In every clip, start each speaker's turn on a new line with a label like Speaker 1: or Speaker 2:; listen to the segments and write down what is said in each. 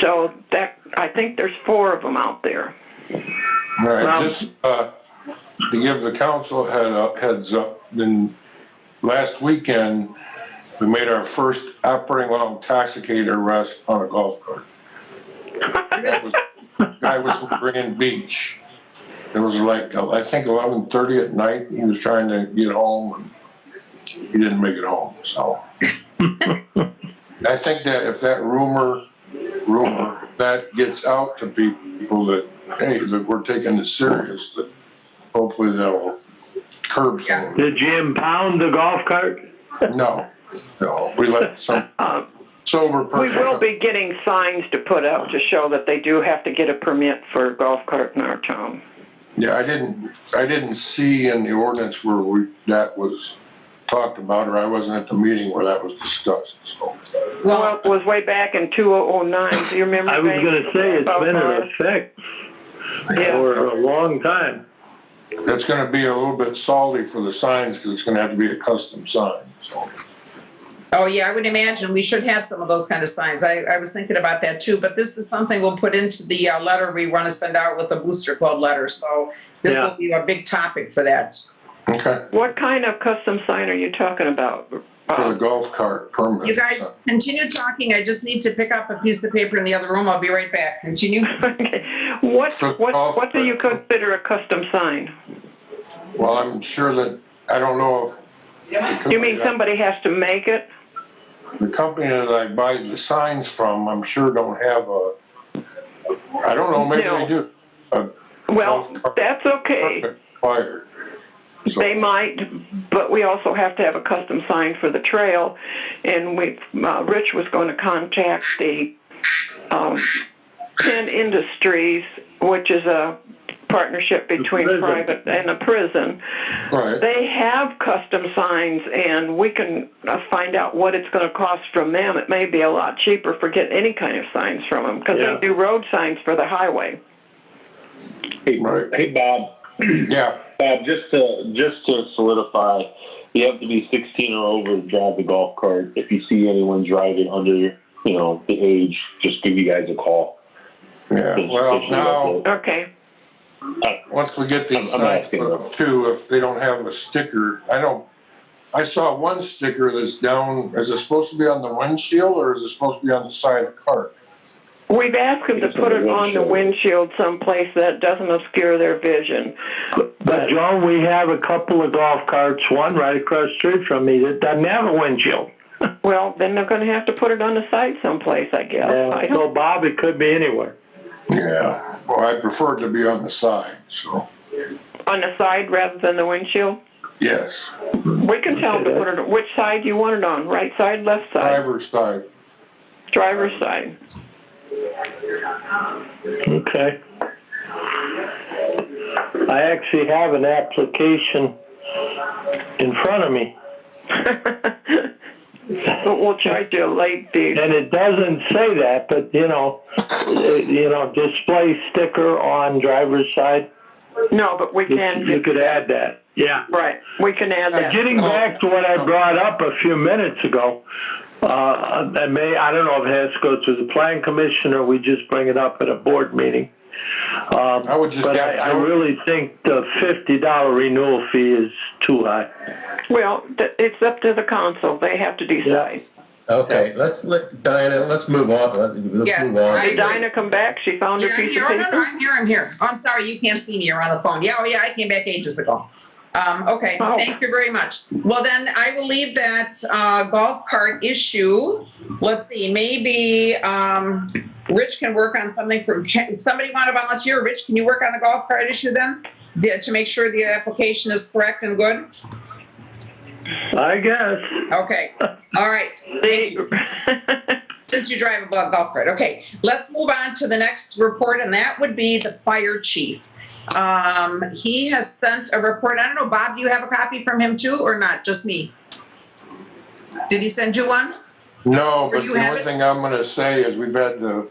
Speaker 1: So that I think there's four of them out there.
Speaker 2: All right,
Speaker 1: Well-
Speaker 2: just, uh, to give the council a head up, heads up, then last weekend, we made our first operating while intoxicated arrest on a golf cart. That was- Guy was from Grand Beach. It was like, uh, I think eleven thirty at night, he was trying to get home and he didn't make it home, so. I think that if that rumor, rumor, that gets out to people that hey, that we're taking it serious, that hopefully that'll curb some of it.
Speaker 3: Did you impound the golf cart?
Speaker 2: No, no, we let some
Speaker 1: Uh,
Speaker 2: sober
Speaker 1: we
Speaker 2: person.
Speaker 1: will be getting signs to put up to show that they do have to get a permit for a golf cart in our town.
Speaker 2: Yeah, I didn't, I didn't see in the ordinance where we, that was talked about, or I wasn't at the meeting where that was discussed, so.
Speaker 1: Well,
Speaker 4: Well,
Speaker 1: it was way back in 2009. Do you remember?
Speaker 3: I was
Speaker 1: Dave?
Speaker 3: gonna say, it's
Speaker 1: About
Speaker 3: been
Speaker 1: that?
Speaker 3: in effect
Speaker 1: Yeah,
Speaker 3: for a long time.
Speaker 2: It's gonna be a little bit salty for the signs, because it's gonna have to be a custom sign, so.
Speaker 4: oh yeah, I would imagine we should have some of those kind of signs. I, I was thinking about that too, but this is something we'll put into the uh, letter we want to send out with the Booster Club letter. So this
Speaker 3: Yeah.
Speaker 4: will be a big topic for that.
Speaker 2: Okay,
Speaker 1: what kind of custom sign are you talking about?
Speaker 2: for
Speaker 1: Uh,
Speaker 2: the golf cart permit.
Speaker 4: You guys continue talking. I just need to pick up a piece of paper in the other room. I'll be right back. Continue.
Speaker 1: Okay. What,
Speaker 2: For
Speaker 1: what,
Speaker 2: golf
Speaker 1: what do you
Speaker 2: cart.
Speaker 1: consider a custom sign?
Speaker 2: Well, I'm sure that, I don't know if. the
Speaker 1: You mean
Speaker 2: company-
Speaker 1: somebody has to make it?
Speaker 2: the company that I buy the signs from, I'm sure don't have a, I don't know, maybe
Speaker 1: No.
Speaker 2: they do.
Speaker 1: Well,
Speaker 2: Golf cart.
Speaker 1: that's okay.
Speaker 2: Fire. So-
Speaker 1: They might, but we also have to have a custom sign for the trail. And we, uh, Rich was going to contact the um, Penn Industries, which is a partnership between
Speaker 3: prison.
Speaker 1: private and a prison.
Speaker 2: Right,
Speaker 1: They have custom signs, and we can uh, find out what it's going to cost from them. It may be a lot cheaper for getting any kind of signs from them because
Speaker 3: Yeah.
Speaker 1: they do road signs for the highway.
Speaker 5: Hey,
Speaker 2: Right.
Speaker 5: hey, Bob.
Speaker 2: yeah,
Speaker 5: Bob, just to just to solidify, you have to be 16 or over to drive the golf cart. If you see anyone driving under, you know, the age, just give you guys a call.
Speaker 2: yeah,
Speaker 5: Just-
Speaker 2: well,
Speaker 5: just so
Speaker 2: now,
Speaker 1: Okay.
Speaker 2: once we get these
Speaker 5: I'm- I'm
Speaker 2: signs
Speaker 5: asking
Speaker 2: put up too, if they don't have a sticker, I don't, I saw one sticker that's down, is it supposed to be on the windshield or is it supposed to be on the side of the cart?
Speaker 1: We've asked them to
Speaker 5: It's
Speaker 1: put
Speaker 5: on
Speaker 1: it
Speaker 5: the
Speaker 1: on the windshield someplace that doesn't obscure their vision.
Speaker 3: But Joan, we have a couple of golf carts, one right across the street from me that doesn't have a windshield.
Speaker 1: Well, then they're going to have to put it on the side someplace, I guess. Oh, I
Speaker 3: And
Speaker 1: don't,
Speaker 3: Uh, so Bob, it could be anywhere.
Speaker 2: Yeah, well, I prefer it to be on the side, so,
Speaker 1: on the side rather than the windshield.
Speaker 2: yes,
Speaker 1: We can tell them to
Speaker 3: Okay.
Speaker 1: put it. Which side do you want it on? Right side, left side,
Speaker 2: driver's side.
Speaker 1: driver's side.
Speaker 3: Okay. I actually have an application in front of me,
Speaker 1: but we'll charge you a late fee.
Speaker 3: and it doesn't say that, but you know, eh, you know, display sticker on driver's side.
Speaker 1: No, but we can.
Speaker 3: You could add that. Yeah.
Speaker 1: Right, we can add
Speaker 2: Uh,
Speaker 1: that.
Speaker 3: Getting back to what I brought up a few minutes ago, uh, I may, I don't know if it has to go to the plan commission or we just bring it up at a board meeting. Um,
Speaker 2: I would just
Speaker 3: But
Speaker 2: add
Speaker 3: I, I
Speaker 2: Joe-
Speaker 3: really think the fifty dollar renewal fee is too high.
Speaker 1: Well, th- it's up to the council. They have to decide.
Speaker 6: Okay, let's let Diana. Let's move on. Let's, let's
Speaker 4: Yes,
Speaker 6: move on.
Speaker 4: I-
Speaker 1: Did Dinah come back? She found
Speaker 4: Yeah,
Speaker 1: her
Speaker 4: I'm
Speaker 1: piece
Speaker 4: here.
Speaker 1: of
Speaker 4: Oh, no, no,
Speaker 1: paper?
Speaker 4: I'm here. I'm here. Oh, I'm sorry. You can't see me. You're on the phone. Yeah, oh, yeah. I came back ages ago. Um, okay.
Speaker 1: Oh.
Speaker 4: Thank you very much. Well, then I will leave that uh, golf cart issue. Let's see. Maybe um, Rich can work on something for. Can, somebody want to volunteer? Rich, can you work on the golf cart issue then? The, to make sure the application is correct and good.
Speaker 3: I guess.
Speaker 4: Okay. All right.
Speaker 1: They-
Speaker 4: Since you drive a bu- golf cart. Okay, let's move on to the next report, and that would be the fire chief. Um, he has sent a report. I don't know, Bob, do you have a copy from him too, or not? Just me? Did he send you one?
Speaker 2: No,
Speaker 4: Or
Speaker 2: but
Speaker 4: you
Speaker 2: the
Speaker 4: have
Speaker 2: only
Speaker 4: it?
Speaker 2: thing I'm gonna say is we've had the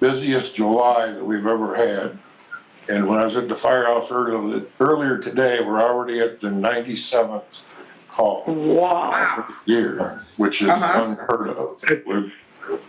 Speaker 2: busiest July that we've ever had. And when I was at the firehouse earlier, earlier today, we're already at the ninety-seventh call
Speaker 1: Wow.
Speaker 4: Wow.
Speaker 2: year, which is
Speaker 4: Uh-huh.
Speaker 2: unheard of. We're-